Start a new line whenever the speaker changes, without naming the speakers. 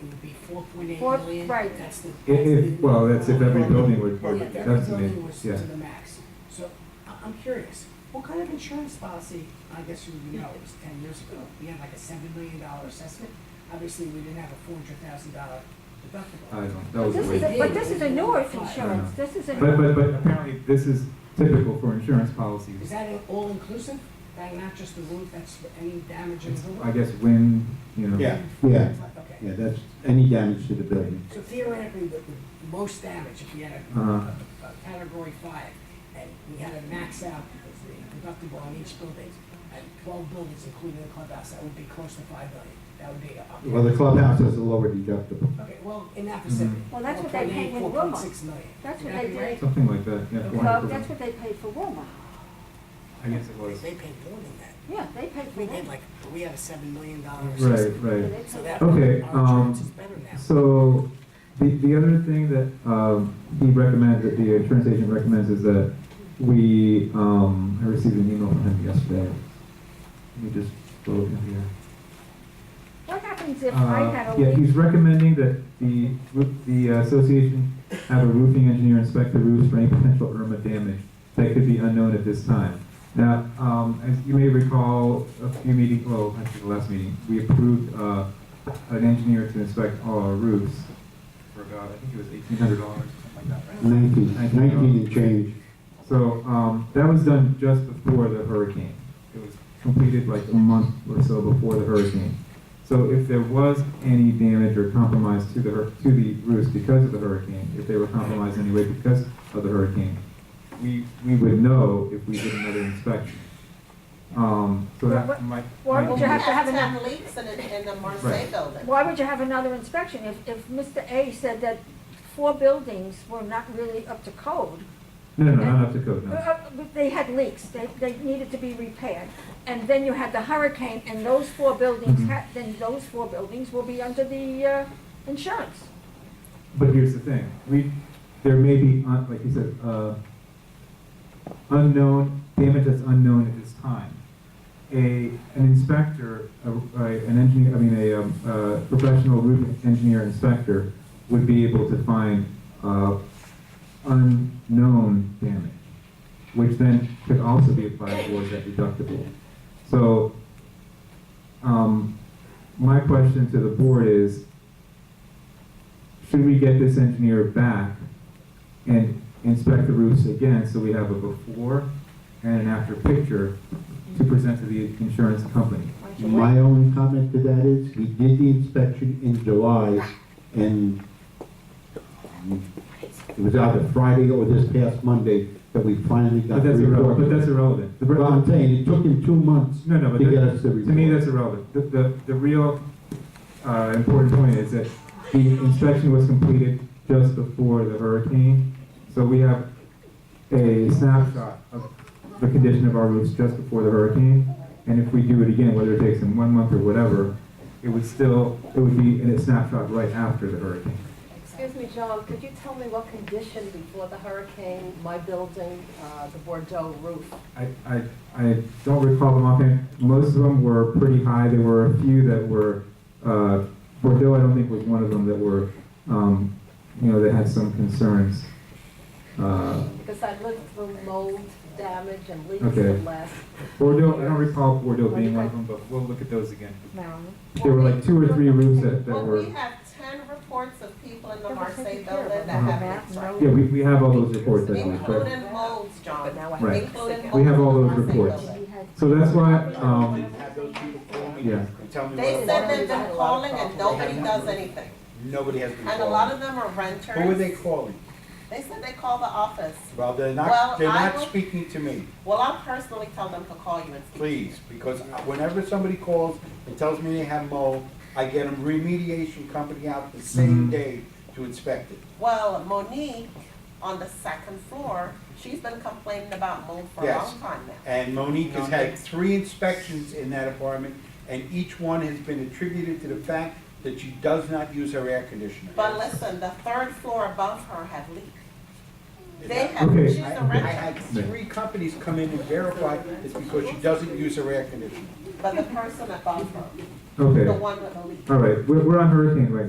it would be four point eight
Four-
million.
right.
That's the.
If, if,
that's the-
well, that's if every building would,
Oh, Yeah,
would
if every building
definitely,
was to
yeah.
the max. So I- I'm curious, what kind of insurance policy, I guess you know, it was ten years ago, we had like a seven million dollar assessment. Obviously, we didn't have a four hundred thousand dollar
I
deductible.
don't, that was
This
way.
is, a- but this is a North
Yeah.
insurance, this is
But,
a,
but, but apparently this is typical for insurance policies.
Is that all inclusive? That not just the roof, that's any damage in
It's,
the roof?
I guess, wind, you know.
Yeah,
Yeah,
Okay,
yeah, that's any damage to the building.
so theoretically, the, the most damage, if we had a,
Uh-huh.
a category five, and we had to max out the deductible on each building, and twelve buildings, including the clubhouse, that would be close to five million, that would be up.
Well, the clubhouse has a lower deductible.
Okay, well, in that vicinity.
Well, that's what they paid with
4.8,
Wilmot.
4.6 million.
That's
Would
what
that
they
be right?
did.
Something like that, yeah.
Okay.
well,
400%.
that's what they paid for Walmart.
I guess it was.
They paid more than that.
Yeah, they paid for
We did
Walmart.
like, we had a seven million dollar
Right,
assessment.
Yeah,
right.
they
So
paid-
that, our
Okay, um,
insurance is better now.
So, the, the other thing that, um, he recommends, that the insurance agent recommends is that we, um, I received an email from him yesterday. Let me just go in here.
What happens if I
Uh,
had a
Yeah,
leak?
he's recommending that the, roo- the uh, association have a roofing engineer inspect the roofs for any potential Irma damage that could be unknown at this time. Now, um, as you may recall, a few meetings, well, actually the last meeting, we approved, uh, an engineer to inspect all our roofs. For about, I think it was eighteen hundred dollars, something like that, right?
Nineteen, nineteen and change.
So, um, that was done just before the hurricane. It was completed like a month or so before the hurricane. So if there was any damage or compromise to the, hur- to the roofs because of the hurricane, if they were compromised anyway because of the hurricane, we, we would know if we did another inspection. Um, so that
What-
might.
why
might
would
be-
you have- to
We
enough-
have ten leaks in, the- in the
Right.
Marseille building.
Why would you have another inspection if, if Mr. A said that four buildings were not really up to code?
No, no, not up to code,
Uh,
no.
uh, but They had leaks, they, they needed to be repaired. And then you had the hurricane and those four buildings,
Mhm.
had- then those four buildings will be under the, uh, insurance.
But here's the thing, we, there may be, un- like you said, uh, unknown, damage that's unknown at this time. A, an inspector, a, a- an engineer, I mean, a, um, uh professional roof engineer inspector would be able to find, uh, unknown damage, which then could also be applied towards that deductible. So, um, my question to the board is, should we get this engineer back and inspect the roofs again, so we have a before and an after picture to present to the insurance company?
My only comment to that is, we did the inspection in July, and um, it was either Friday or this past Monday that we finally got
But
the
that's
report.
irrelevant, but that's irrelevant. The-
But I'm saying, it took him two months
No, no,
to
but
get
that-
us the report.
to me, that's irrelevant. The, the, the real, uh, important point is that the inspection was completed just before the hurricane, so we have a snapshot of the condition of our roofs just before the hurricane, and if we do it again, whether it takes in one month or whatever, it would still, it would be in a snapshot right after the hurricane.
Excuse me, John, could you tell me what condition before the hurricane, my building, uh, the Bordeaux roof?
I, I, I don't recall them offhand. Most of them were pretty high. There were a few that were, uh, Bordeaux, I don't think was one of them that were, um, you know, that had some concerns. Uh,
Because I lived through mold damage and leaks
Okay.
and last.
Bordeaux, I don't recall Bordeaux being one of them, but we'll look at those again.
Marilyn?
There were like two or three roofs that, that
Well,
were,
we have ten reports of people in the
That was
Marseille
taken care of.
building that
Uh-huh.
have been
Matt,
inspected.
yeah, we, we have all those reports, I think, but,
Including molds, John.
But now I have
Right.
leaks
Including
again.
We have all
molds in
those
Marseille
reports.
building.
We had-
so that's why,
Did
um,
have those people call me
Yeah.
and tell me
They
what-
said they've been calling and nobody does anything.
Nobody has been
And a lot
calling.
of them are renters.
Who were they calling?
They said they call the office.
Well,
Well,
they're not, they're
I
not
will-
speaking to me,
Well, I'll personally tell them to call you and speak.
please, because whenever somebody calls and tells me they have mold, I get a remediation company out the same
Mhm.
day to inspect it.
Well, Monique, on the second floor, she's been complaining about mold for a
Yes.
long time now.
And Monique has had three inspections in that apartment, and each one has been attributed to the fact that she does not use her air conditioner.
But listen, the third floor above her had leaked. They
Yeah.
have,
Okay.
she's
I
a
I
renter,
had three companies come in and verify it's because she doesn't use her air conditioner.
but the person above her, the
okay,
one with the leak.
all right, we're, we're on hurricane right now.